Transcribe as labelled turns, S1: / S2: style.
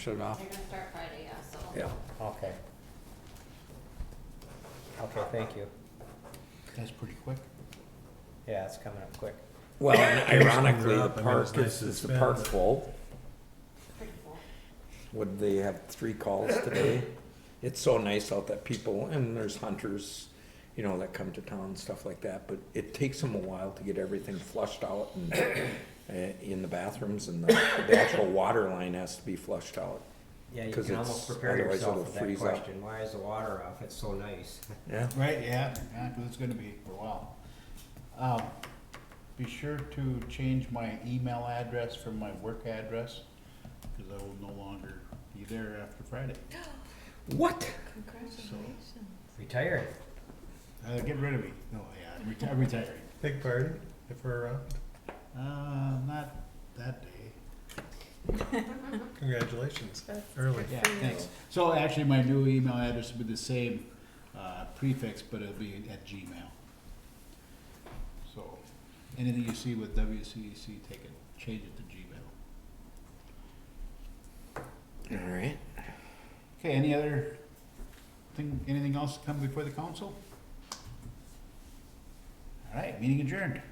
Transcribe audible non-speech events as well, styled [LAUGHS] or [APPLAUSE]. S1: shut it off.
S2: They're gonna start Friday, yeah, so.
S1: Yeah.
S3: Okay. Okay, thank you.
S4: That's pretty quick.
S3: Yeah, it's coming up quick.
S1: Well, and ironically,
S4: Clear
S1: the
S4: up, I mean, it's
S1: park is,
S4: nice
S1: is the
S4: and
S1: park
S4: spent.
S1: full.
S2: Pretty cool.
S1: Would they have three calls today? It's so nice out that people, and there's hunters, you know, that come to town and stuff like that, but it takes them a while to get everything flushed out and uh, in the bathrooms and the, the actual water line has to be flushed out.
S3: Yeah, you
S1: 'Cause
S3: can
S1: it's-
S3: almost prepare
S1: otherwise
S3: yourself
S1: it'll
S3: with that
S1: freeze up.
S3: question. Why is the water off? It's so nice. [LAUGHS]
S1: Yeah.
S4: Right, yeah, yeah, 'cause it's gonna be for a while. Um, be sure to change my email address from my work address, cause I will no longer be there after Friday.
S1: What?
S4: Congratulations.
S3: Retired.
S4: Uh, get rid of me. No, yeah, I'm reti- I'm retiring.
S5: Big party, if we're around.
S4: Uh, not that day.
S5: Congratulations, early.
S4: Yeah, thanks. So actually, my new email address will be the same, uh, prefix, but it'll be at Gmail. So, anything you see with WCEC, take it, change it to Gmail.
S1: All right.
S4: Okay, any other thing, anything else come before the council? All right, meeting adjourned.